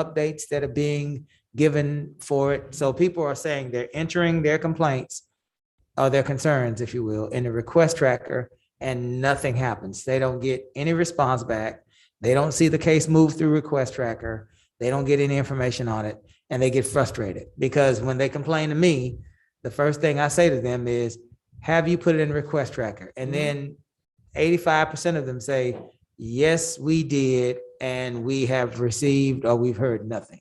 updates that are being given for it. So people are saying they're entering their complaints or their concerns, if you will, in the request tracker and nothing happens. They don't get any response back. They don't see the case move through request tracker. They don't get any information on it and they get frustrated because when they complain to me, the first thing I say to them is, have you put it in request tracker? And then eighty-five percent of them say, yes, we did, and we have received or we've heard nothing.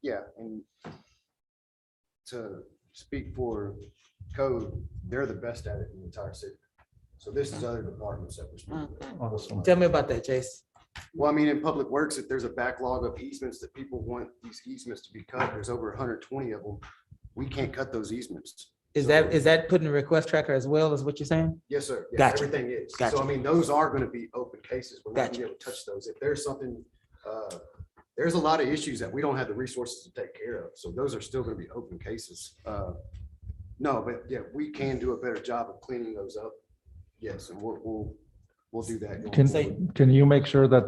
Yeah, and to speak for code, they're the best at it in the entire city. So this is other departments that we're speaking with. Tell me about that, Chase. Well, I mean, in public works, if there's a backlog of easements that people want these easements to be cut, there's over hundred twenty of them. We can't cut those easements. Is that, is that putting a request tracker as well as what you're saying? Yes, sir. Yeah, Gotcha. Everything is. Gotcha. So I mean, those are gonna be open cases. We're not Gotcha. gonna be able to touch those. If there's something, uh, there's a lot of issues that we don't have the resources to take care of. So those are still gonna be open cases. Uh, No, but yeah, we can do a better job of cleaning those up. Yes, and we'll, we'll, we'll do that. going forward. Can, can you make sure that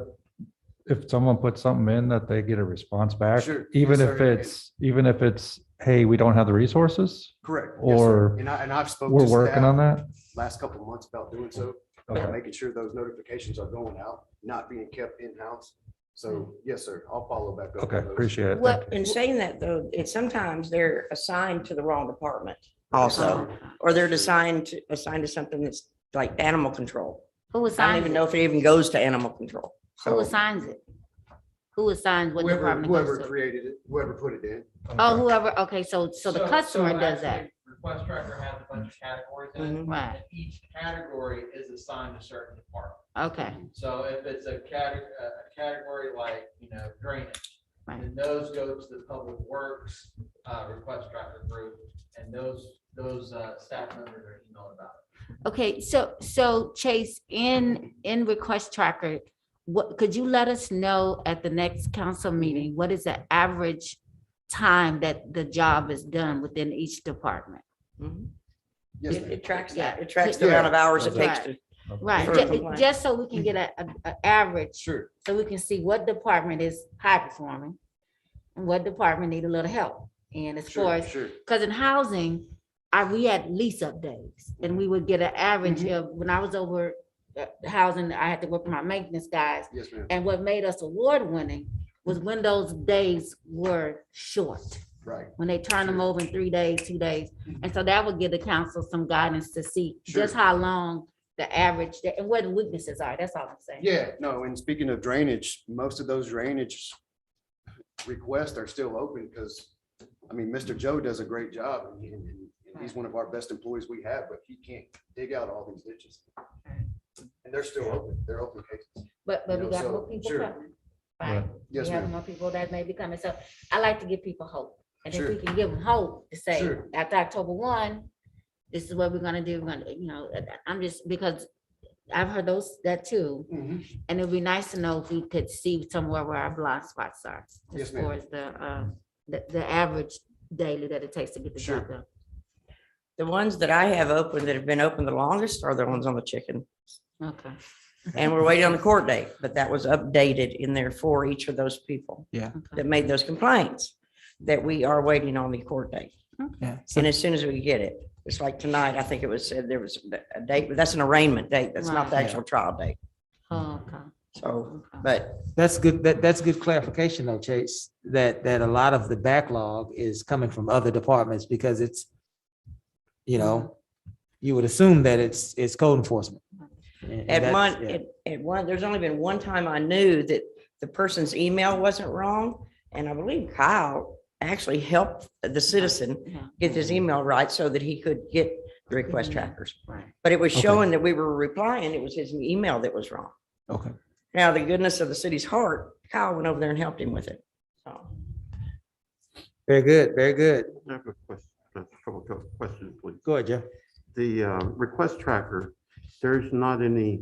if someone puts something in, that they get a response back? Sure. Even Yes, if sir. it's, even if it's, hey, we don't have the resources, Correct. Yes, sir. or And I, and I've spoken we're to working on staff that? last couple of months about doing so. about Okay. making sure those notifications are going out, not being kept in-house. So yes, sir, I'll follow back up. Hmm. Okay, on those. appreciate it. Well, Thank you. in saying that though, it's sometimes they're assigned to the wrong department also, or they're assigned to, assigned to something that's like animal control. Who I don't assigns even it? know if it even goes to animal control. Who So assigns it? Who assigns what Whoever, department whoever goes to? created it, whoever put it in. Oh, whoever, okay, so, so the customer so does that, Mm-hmm. actually, Request tracker has a bunch of categories in it. Mhm. right, And each category is assigned a certain department. okay, So if it's a category, a category like, you know, drainage, Right. then those go to the public works, uh, request tracker group. And those, those, uh, staff members are emailed about it. okay, so, so Chase, in, in request tracker, what, could you let us know at the next council meeting, what is the average time that the job is done within each department? Mhm. Yes, it ma'am. it tracks Yeah. that. It tracks the amount of hours it takes to. Right, For ju- compliance. just so we can get a, a, a average Sure. so we can see what department is high performing and what department need a little help. And as far Sure, as, sure. because in housing, I, we had lease up days and we would get an average of, Mm-hmm. when I was over uh, housing, I had to work with my maintenance guys. Yes, ma'am. And what made us award winning was when those days were short, Right. when they turned them Sure. over Mm-hmm. in three days, two days. And so that would give the council some guidance to see just Sure. how long the average, day- and what the weaknesses are. That's all I'm saying. Yeah, no, and speaking of drainage, most of those drainage requests are still open because, I mean, Mr. Joe does a great job and, and- and he's one of our best employees we have, but he can't dig out all these ditches. And they're still open. They're open cases. But, but You we know, got so, more people sure. coming. Right. Right, we Yes, have ma'am. more people that may be coming, so I like to give people hope, and if Sure. we can give them hope to say, Sure. after October one, this is what we're gonna do, we're gonna, you know, uh, I'm just, because I've heard those, that too, Mhm. and it'd be nice to know if we could see somewhere where our blind spots are. As Yes, far ma'am. as the, uh, the, the average daily that it takes to get the Sure. job done. The ones that I have open that have been open the longest are the ones on the chicken. Okay, Mm-hmm. And we're waiting on the court date, but that was updated in there for each of those people okay, that made those complaints that we are waiting on the court date. Yeah. So And as soon as we get it, it's like tonight, I think it was said there was a date, but that's an arraignment date. That's not the Right. actual trial date. Oh, okay, So, okay. but that's good, that, that's good clarification though, Chase, that, that a lot of the backlog is coming from other departments because it's, you know, you would assume that it's, it's code enforcement. And- and at that's- one, yeah. at, at one, there's only been one time I knew that the person's email wasn't wrong. And I believe Kyle actually helped the citizen Yeah, get his email right so that he could get the request trackers. right. But it was Mm-hmm. Okay. showing that we were replying. It was his email that was wrong. Okay. Now, the goodness of the city's heart, Kyle went over there and helped him with it. So. Very good, very good. I have a question, a couple of questions, please. Go ahead, Jeff. The uh, request tracker, there's not any,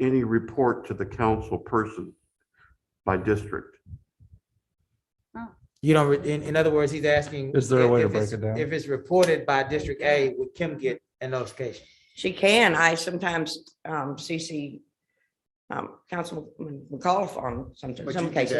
any report to the council person by district. You don't, re- in, in other words, he's asking. Is there a way to if it's- break it down? If it's reported by District A, would Kim get a notification? She can. I sometimes um, CC um, Councilman McAuliffe on some, But you some did cases.